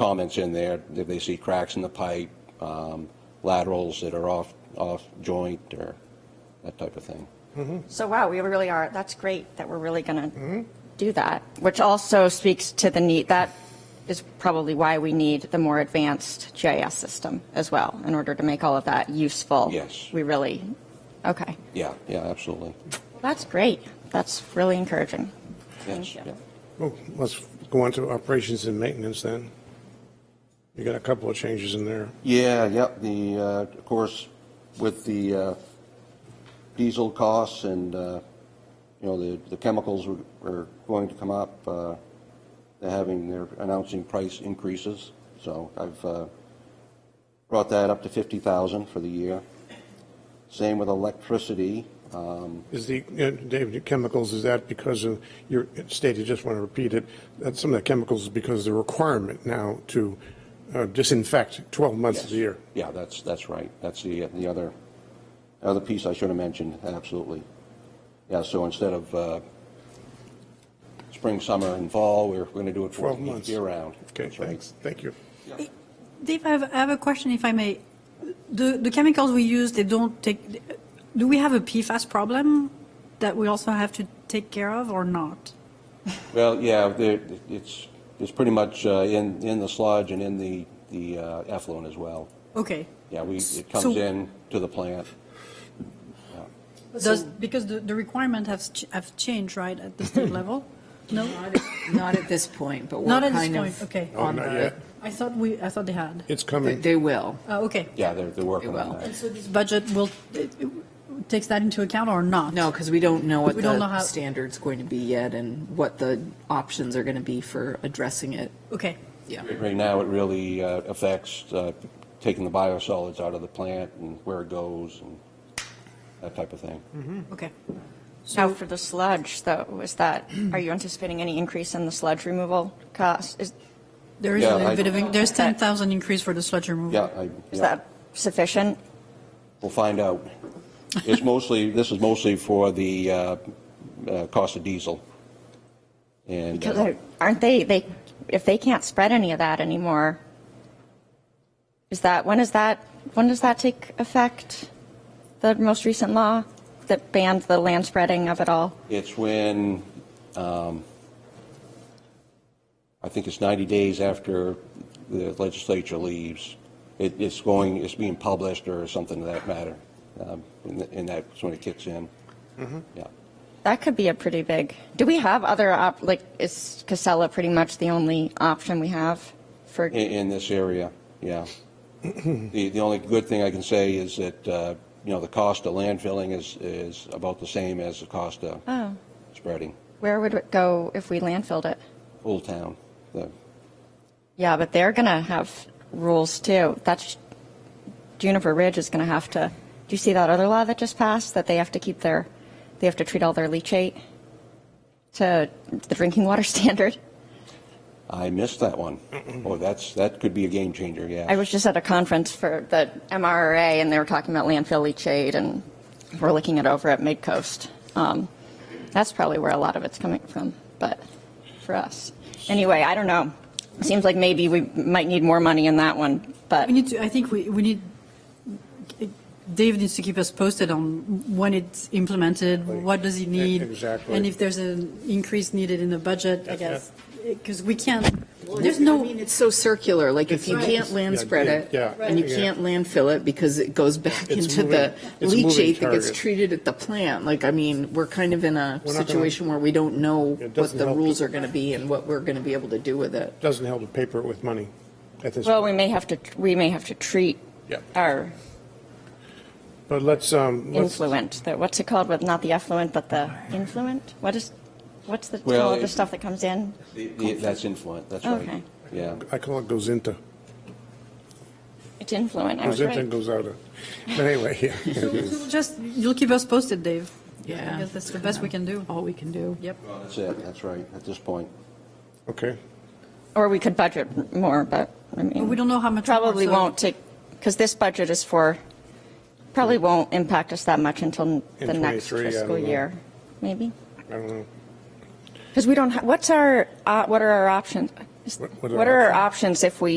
comments in there, if they see cracks in the pipe, um, laterals that are off, off joint or that type of thing. So wow, we really are, that's great that we're really going to do that, which also speaks to the need, that is probably why we need the more advanced GIS system as well, in order to make all of that useful. Yes. We really, okay. Yeah, yeah, absolutely. That's great. That's really encouraging. Yes, Thank you. yeah. Well, let's go on to operations and maintenance then. You got a couple of changes in there. Yeah, yep, the, uh, of course, with the uh, diesel costs and, uh, you know, the, the chemicals were- are going to come up, uh, they're having, they're announcing price increases, so I've uh, brought that up to 50,000 for the year. Same with electricity, um, Is the, uh, Dave, the chemicals, is that because of, your stated, just want to repeat it, that some of the chemicals is because of the requirement now to uh, disinfect 12 months of the year? yeah, that's, that's right, that's the, the other, other piece I should have mentioned, absolutely. Yeah, so instead of uh, spring, summer, and fall, we're going to do it for 12 months. year-round. Okay, thanks, thank you. Dave, I have, I have a question, if I may. The, the chemicals we use, they don't take, do we have a PFAS problem that we also have to take care of or not? Well, yeah, there- it's, it's pretty much uh, in, in the sludge and in the, the uh, effluent as well. Okay. Yeah, we, it So- comes in to the plant. Does, because the, the requirement has, ch- have changed, right, at the state level? No? Not at this point, but we're Not at this kind point, okay. of No, on Oh, not the, yet. I thought we, I thought they had. It's they- coming. they will. Uh, okay. Yeah, they're, they're working It will. on that. So this budget will, it- it takes that into account or not? No, because we don't know what We don't know how- the standard's going to be yet and what the options are going to be for addressing it. Okay. Yeah. Right now, it really uh, affects uh, taking the biosolids out of the plant and where it goes and that type of thing. Mm-hmm. Okay. Now, for the sludge, though, is that, are you anticipating any increase in the sludge removal cost? Is, There is Yeah, a little I- bit of, in- there's 10,000 increase for the sludge removal. Yeah, I, is yeah, that sufficient? we'll find out. It's mostly, this is mostly for the uh, uh, cost of diesel. And, Because uh, they're- aren't they, they, if they can't spread any of that anymore, is that, when is that, when does that take effect? The most recent law that banned the land spreading of it all? it's when, um, I think it's 90 days after the legislature leaves. It, it's going, it's being published or something to that matter. Um, And th- and that's when it kicks in. Yeah. That could be a pretty big, do we have other, op? like, is Casella pretty much the only option we have for? In, in this area, yeah. The, the only good thing I can say is that, uh, you know, the cost of landfilling is, is about the same as the cost of spreading. Where would it go if we landfilled it? Old Town, the, Yeah, but they're going to have rules too. That's Juniper Ridge is going to have to. Do you see that other law that just passed that they have to keep their, they have to treat all their leachate to the drinking water standard? I missed that one. Oh, that's, that could be a game changer, yeah. I was just at a conference for the MRRA and they were talking about landfill leachate and we're looking it over at Midcoast. Um, that's probably where a lot of it's coming from, but for us. Anyway, I don't know. Seems like maybe we might need more money in that one, but. We need to, I think we, we need, Dave needs to keep us posted on when it's implemented, what does he need? Exactly. And if there's an increase needed in the budget, I guess, because we can't, there's I no, mean, it's so circular, like if you It's- can't land spread it, Yeah, yeah. and you Right. can't landfill it because it goes back It's into moving- the it's moving leachate that gets target. treated at the plant, like, I mean, we're kind of in a We're not gonna- situation where we don't know It what doesn't the help rules to- are going to be and what we're going to be able to do with it. Doesn't help to paper it with money at this Well, we point. may have to, we may have to treat Yeah. our But let's, um, let's, influent, the- what's it called, with not the effluent, but the influent? What is, what's the, Well, all of the it- stuff that comes in? The- the- That's influent, that's right. Okay. Yeah. I call it goes into, It's influent, I was goes into and right. goes out of. But anyway, yeah. just, you'll keep us posted, Dave. I Yeah. guess that's the best we can do. All we can do. Yep. That's it, that's right, at this point. Okay, Or we could budget more, but, I mean. We don't know how much. more, Probably so- won't take, because this budget is for, probably won't impact us that much until In the next 23, I don't fiscal know. year, maybe? I don't know. Because we don't, ha- what's our, uh, what are our options? What What are our options if we